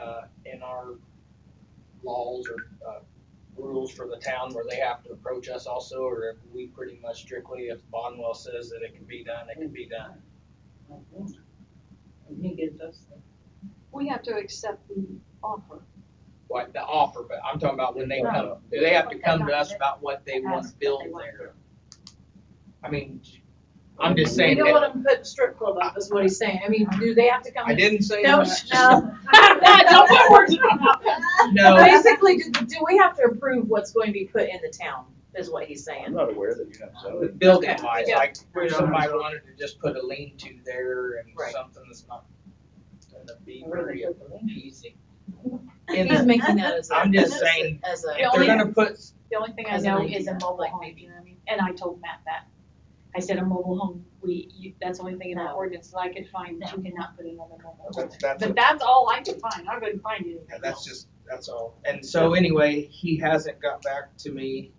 uh, our laws or, uh, rules for the town where they have to approach us also, or if we pretty much strictly, if Bonwell says that it can be done, it can be done. And he gives us the. We have to accept the offer. Like the offer, but I'm talking about when they come, Right. they have to come to us about what they want to Ask what build they want. there. I mean, I'm just saying You don't that, want them put strip club up, is what he's saying, I mean, do they have to come? I in? didn't say No, that. sh- no. Don't put words in my mouth. No, Basically, do, do we have to approve what's going to be put in the town, is what he's I'm saying? not aware that you have zoning. building wise, Yeah. like, if somebody wanted to just put a lean-to there and Right. something that's not gonna be very easy. And he's making that as a. I'm just saying, As a. The If they're only- gonna put The only thing I As an know idea. is a mobile Like home, maybe- you know what I mean? And I told Matt that. I said a mobile home, we, you, that's the only thing in our No. ordinance that I could find that you cannot put another mobile home. That's, that's, But that's all I could find. I couldn't find anything yeah, that's else. just, that's all. And so anyway, he hasn't got back to me.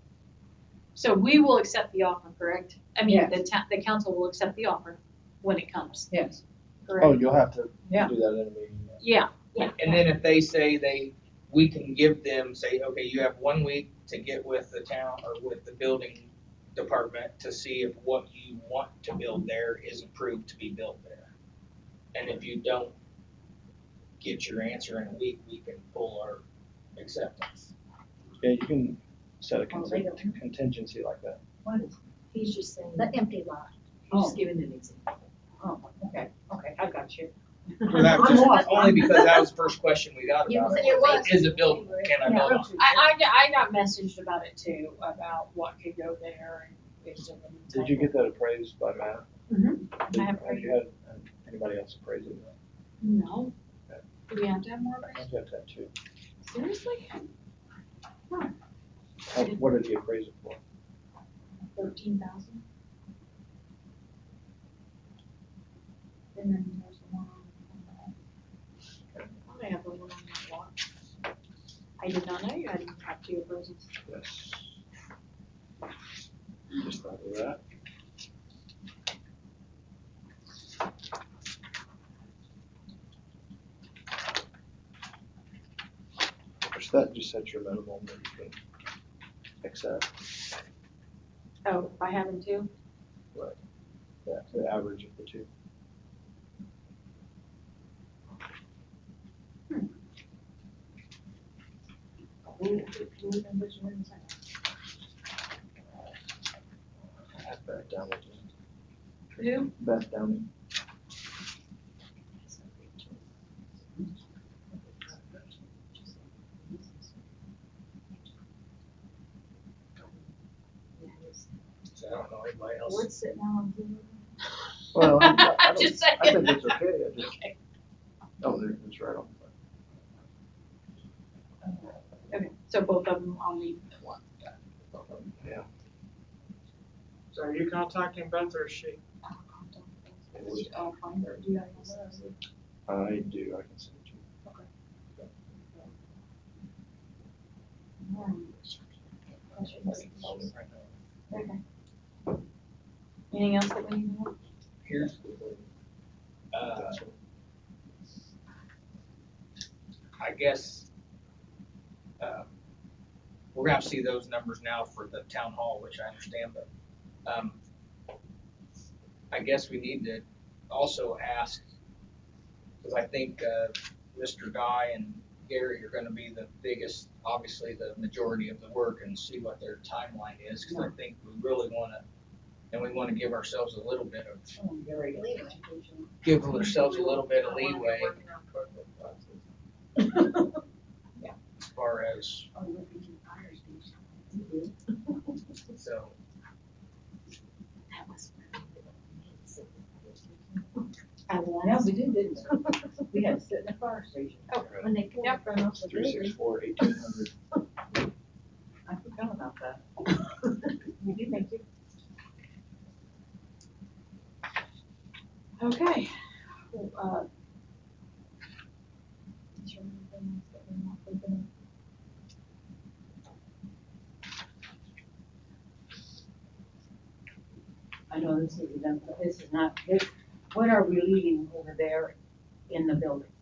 So we will accept the offer, correct? I mean, Yes. the town, the council will accept the offer when it comes, Yes. Oh, correct? you'll have to do Yeah. that in a meeting. Yeah, yeah. And then if they say they, we can give them, say, okay, you have one week to get with the town or with the building department to see if what you want to build there is approved to be built there. And if you don't get your answer in a week, we can pull our acceptance. Yeah, you can set a Oh, they don't. contin- contingency like that. What is, He's just saying, the empty lot, he's Oh. just giving an example. Oh, okay, okay, I got you. For that, I'm just lost. only because that was the first question we got You about said it. it was. Is it built, can I build on it? I, I, got- I got messaged about it too, about what could go there and. it's just- Did you get that appraised by Matt? Did- I have Have you had uh, anybody else appraise it? No. Do we have to have more I appraisal? think you have to have two. Seriously? How- What did you appraise it for? Thirteen thousand? And then there's one on the back. I have the one on my watch. I did not know you had to have two appraisals. Yes. Just thought of that. Which that just sets your minimum that you can accept, Oh, by having two? yeah, the average of the two. Beth Downey. Who? Beth Downey. So I don't know anybody else. What's it now on Zoom? Well, I- I I'm don't- just I saying. think it's okay, I just, oh, there, it's right on. Okay, so both of them I'll leave at once. Yeah. So are you contacting Beth or is she? I'll find her, do you have her? I do, I can send it to you. Okay. Anything else that we need to know? Here's. Uh, I guess, uh, we're gonna have to see those numbers now for the town hall, which I understand, but, um, I guess we need to also ask, because I think, uh, Mr. Guy and Gary are gonna be the biggest, obviously, the majority of the work and see what their timeline is, because I think we really wanna, and we wanna give ourselves a little bit of, give ourselves a little bit of leeway as far as, so. I love. Yeah, we did, didn't we? We had to sit in the fire station. Oh, when they came up from us. Three six four eighteen hundred. I forgot about that. We did make it. Okay. Well, uh, is there anything else that we're not thinking I know this is, a dump, but this is not, this, what are we leaving over there in the building?